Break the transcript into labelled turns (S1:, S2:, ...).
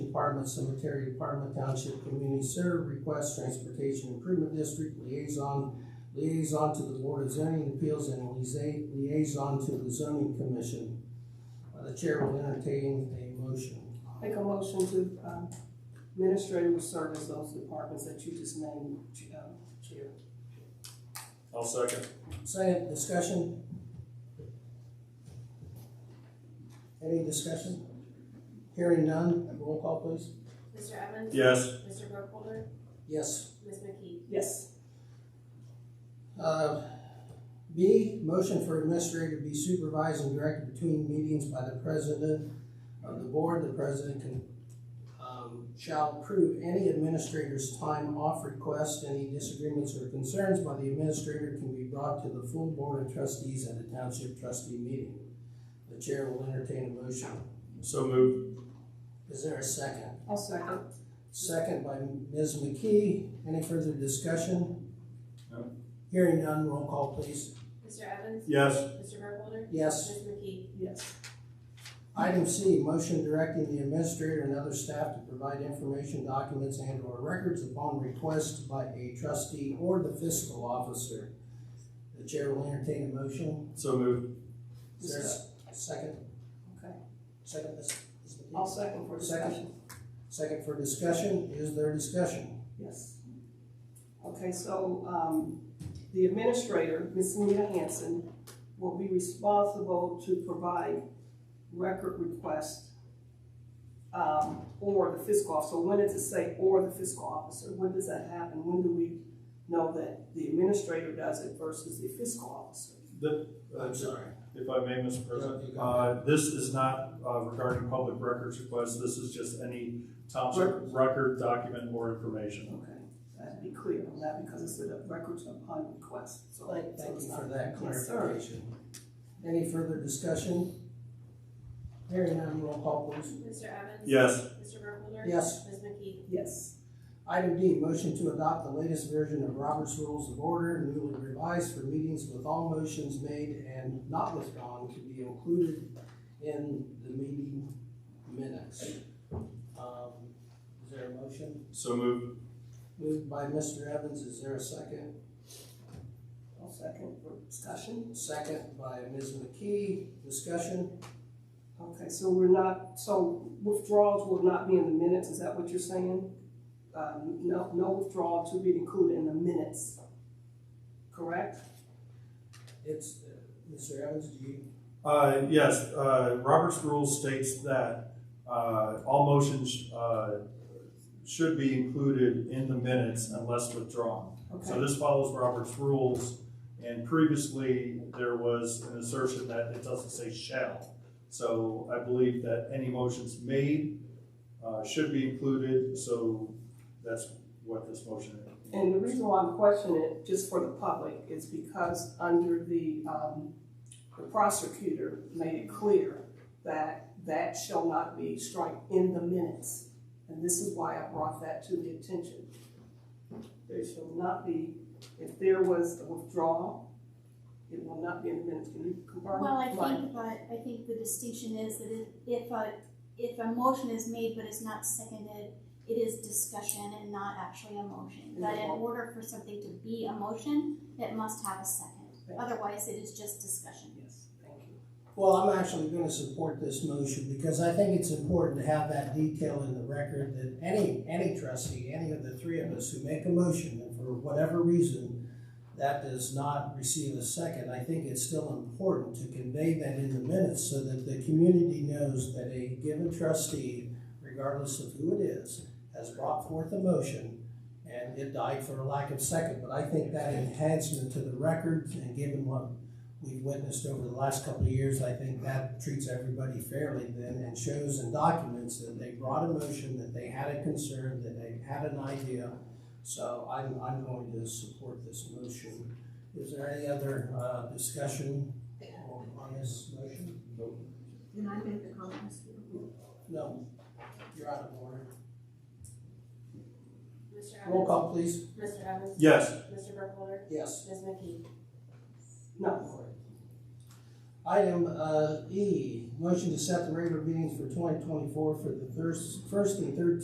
S1: Department, Cemetery Department, Township Community Serve, Request Transportation Improvement District, Liaison, Liaison to the Board of Zoning Appeals, and liaison- Liaison to the Zoning Commission. Uh, The Chair will entertain a motion.
S2: Make a motion to, um, administrator will serve as those departments that you just named, um, Chair.
S3: I'll second.
S1: Second, discussion? Any discussion? Hearing none, roll call please.
S4: Mr. Evans?
S3: Yes.
S4: Mr. Burkholder?
S1: Yes.
S4: Ms. McKee?
S2: Yes.
S1: Uh, B, motion for administrator to be supervised and directed between meetings by the president of the board. The president can, um, shall approve any administrator's time off request. Any disagreements or concerns by the administrator can be brought to the full board of trustees at a township trustee meeting. The chair will entertain a motion.
S3: So moved.
S1: Is there a second?
S2: I'll second.
S1: Second by Ms. McKee. Any further discussion?
S3: No.
S1: Hearing none, roll call please.
S4: Mr. Evans?
S3: Yes.
S4: Mr. Burkholder?
S1: Yes.
S4: Ms. McKee?
S2: Yes.
S1: Item C, motion directing the administrator and other staff to provide information, documents, and/or records upon request by a trustee or the fiscal officer. The chair will entertain a motion.
S3: So moved.
S1: Is there a second?
S2: Okay.
S1: Second, Ms. Ms. McKee?
S2: I'll second for discussion.
S1: Second for discussion. Is there discussion?
S2: Yes. Okay, so, um, the administrator, Ms. Nita Hanson, will be responsible to provide record request, um, or the fiscal officer. When does it say or the fiscal officer? When does that happen? When do we know that the administrator does it versus the fiscal officer?
S3: The,
S1: I'm sorry.
S3: if I may, Mr. President, uh, this is not, uh, regarding public records requests. This is just any township record, document, or information.
S2: Okay, that'd be clear on that because it's a records upon request, so.
S1: Thank
S2: so
S1: thank
S2: it's
S1: you
S2: not-
S1: for that
S2: Yes, sir.
S1: clarification. Any further discussion? Hearing none, roll call please.
S4: Mr. Evans?
S3: Yes.
S4: Mr. Burkholder?
S1: Yes.
S4: Ms. McKee?
S2: Yes,
S1: Item D, motion to adopt the latest version of Robert's Rules of Order newly revised for meetings with all motions made and not withdrawn to be included in the meeting minutes. Um, Is there a motion?
S3: So moved.
S1: Moved by Mr. Evans, is there a second?
S2: I'll second for discussion.
S1: Second by Ms. McKee, discussion?
S2: Okay, so we're not, so withdrawals will not be in the minutes, is that what you're saying? Um, no, no withdrawal to be included in the minutes, correct?
S1: It's, uh, Mr. Evans, do you?
S3: Uh, yes, uh, Robert's rule states that, uh, all motions, uh, should be included in the minutes unless withdrawn. So
S2: Okay,
S3: this follows Robert's rules, and previously, there was an assertion that it doesn't say shall. So I believe that any motions made uh, should be included, so that's what this motion is.
S2: and the reason why I'm questioning it, just for the public, is because under the, um, the prosecutor made it clear that that shall not be struck in the minutes. And this is why I brought that to the attention. There shall not be, if there was a withdrawal, it will not be in the minutes. Can you confirm?
S5: Well, I
S2: Right.
S5: think, but I think the distinction is that if- if a, if a motion is made but it's not seconded, it is discussion and not actually a motion. That in order for something to be a motion, it must have a second. Otherwise, it is just discussion.
S2: Yes, thank you.
S1: Well, I'm actually gonna support this motion because I think it's important to have that detail in the record that any, any trustee, any of the three of us who make a motion, and for whatever reason, that does not receive a second, I think it's still important to convey that in the minutes so that the community knows that a given trustee, regardless of who it is, has brought forth a motion and it died for a lack of second. But I think that enhancement to the record and given what we've witnessed over the last couple of years, I think that treats everybody fairly then and shows and documents that they brought a motion, that they had a concern, that they had an idea. So I'm, I'm going to support this motion. Is there any other, uh, discussion on on this motion?
S6: Can I make a comment, Mr. Chairman?
S1: No, you're out of order.
S4: Mr. Evans?
S1: Roll call, please.
S4: Mr. Evans?
S3: Yes,
S4: Mr. Burkholder?
S1: Yes.
S4: Ms. McKee?
S2: No,
S1: Item uh, E, motion to set the regular meetings for twenty twenty-four for the first, first and third